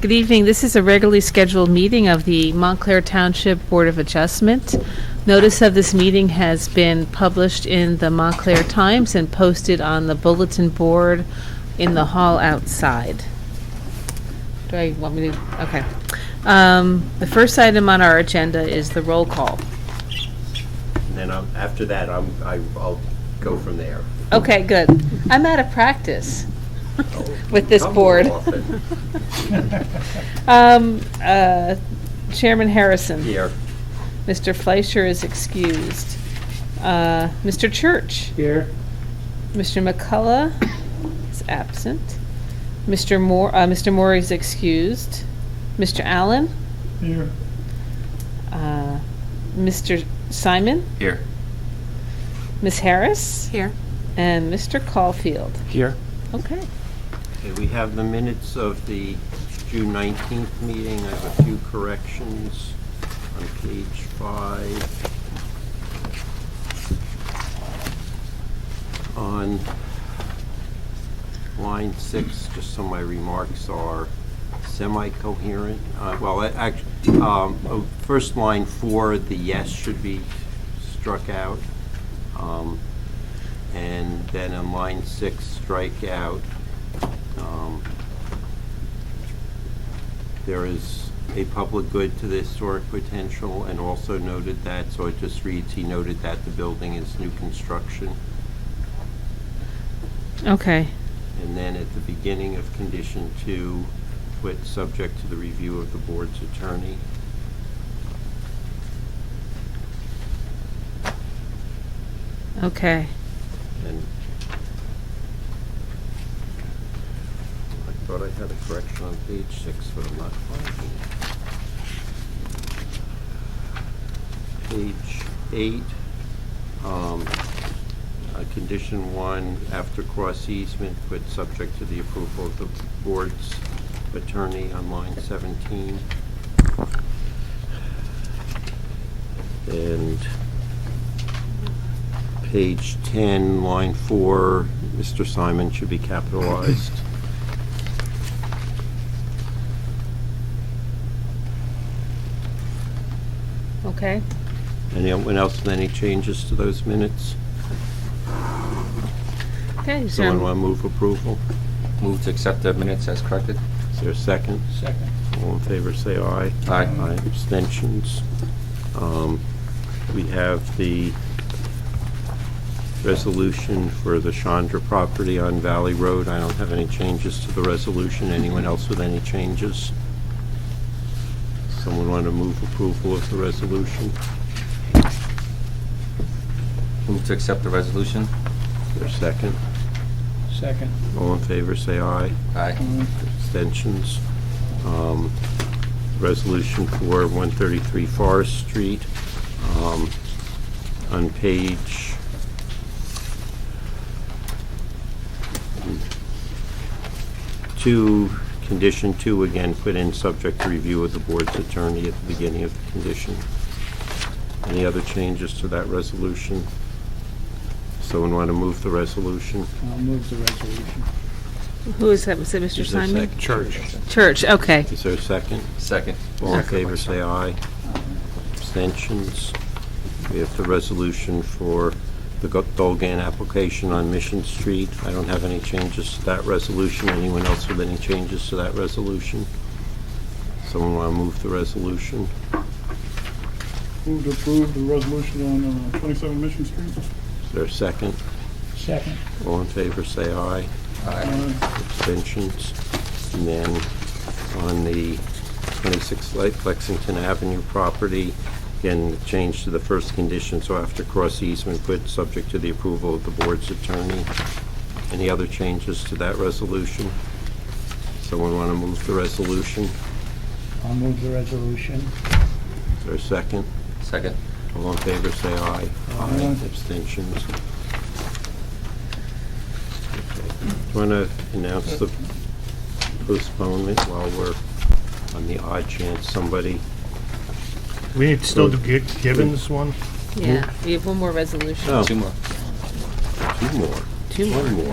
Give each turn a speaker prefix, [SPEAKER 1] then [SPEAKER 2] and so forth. [SPEAKER 1] Good evening. This is a regularly scheduled meeting of the Montclair Township Board of Adjustment. Notice of this meeting has been published in the Montclair Times and posted on the bulletin board in the hall outside. Do I want me to, okay. Um, The first item on our agenda is the roll call.
[SPEAKER 2] And then I'm, after that, I'm, I- I'll go from there.
[SPEAKER 1] Okay, good. I'm out of practice with this
[SPEAKER 2] Come
[SPEAKER 1] board.
[SPEAKER 2] often.
[SPEAKER 1] Um, uh, Chairman Harrison.
[SPEAKER 2] Here,
[SPEAKER 1] Mr. Fleischer is excused. Uh, Mr. Church.
[SPEAKER 3] Here.
[SPEAKER 1] Mr. McCullough is absent. Mr. Moore, uh, Mr. Moore is excused. Mr. Allen.
[SPEAKER 3] Here.
[SPEAKER 1] uh, Mr. Simon. Here. Ms. Harris. Here. And Mr. Caulfield.
[SPEAKER 3] Here.
[SPEAKER 1] Okay.
[SPEAKER 2] Okay, we have the minutes of the June 19th meeting. I have a few corrections on page five. On line six, just so my remarks are semi-coherent, uh, well, actually, oh, first line four, the yes should be struck out. Um, And then in line six, strike out, um, there is a public good to the historic potential, and also noted that, so it just reads, he noted that the building is new construction.
[SPEAKER 1] Okay.
[SPEAKER 2] And then at the beginning of condition two, put subject to the review of the board's attorney.
[SPEAKER 1] Okay.
[SPEAKER 2] And I thought I had a correction on page six, but I'm not finding it. Page eight, um, uh, condition one, after cross easement, but subject to the approval of the board's attorney on line seventeen. And page 10, line 4, Mr. Simon should be capitalized.
[SPEAKER 1] Okay.
[SPEAKER 2] Anyone else with any changes to those minutes?
[SPEAKER 1] Okay. is there-
[SPEAKER 2] Someone want to move approval?
[SPEAKER 4] Move to accept the minutes as corrected.
[SPEAKER 2] Is there a second?
[SPEAKER 3] Second.
[SPEAKER 2] All in favor, say aye.
[SPEAKER 4] Aye.
[SPEAKER 2] Aye, abstentions. Um, We have the resolution for the Chandra property on Valley Road. I don't have any changes to the resolution. Anyone else with any changes? Someone want to move approval of the resolution?
[SPEAKER 4] Move to accept the resolution.
[SPEAKER 2] Is there a second?
[SPEAKER 3] Second.
[SPEAKER 2] All in favor, say aye.
[SPEAKER 4] Aye.
[SPEAKER 2] Abstentions. Um, Resolution for 133 Forest Street. Um, On page... Two, condition two, again, put in subject to review of the board's attorney at the beginning of the condition. Any other changes to that resolution? Someone want to move the resolution?
[SPEAKER 3] I'll move the resolution.
[SPEAKER 1] Who is that? Was it Mr.
[SPEAKER 2] Is there a
[SPEAKER 1] Simon?
[SPEAKER 2] sec-
[SPEAKER 1] Church. Okay.
[SPEAKER 2] Is there a second?
[SPEAKER 4] Second.
[SPEAKER 2] All in favor, say aye. Abstentions? We have the resolution for the Go- Dolgan application on Mission Street. I don't have any changes to that resolution. Anyone else with any changes to that resolution? Someone want to move the resolution?
[SPEAKER 5] Move to approve the resolution on uh, 27 Mission Street.
[SPEAKER 2] Is there a second?
[SPEAKER 3] Second.
[SPEAKER 2] All in favor, say aye.
[SPEAKER 4] Aye.
[SPEAKER 5] Uh,
[SPEAKER 2] abstentions. And then on the 26th Light Lexington Avenue property, again, the change to the first condition, so after cross easement, put subject to the approval of the board's attorney. Any other changes to that resolution? Someone want to move the resolution?
[SPEAKER 3] I'll move the resolution.
[SPEAKER 2] Is there a second?
[SPEAKER 4] Second.
[SPEAKER 2] All in favor, say aye.
[SPEAKER 3] Aye.
[SPEAKER 2] Abstentions. Want to announce the postponement while we're on the odd chance somebody,
[SPEAKER 6] We need to still do Gi- Gibbons one?
[SPEAKER 1] Yeah. We have one more resolution.
[SPEAKER 2] oh,
[SPEAKER 4] Two more.
[SPEAKER 2] two more.
[SPEAKER 1] Two more.
[SPEAKER 2] One more.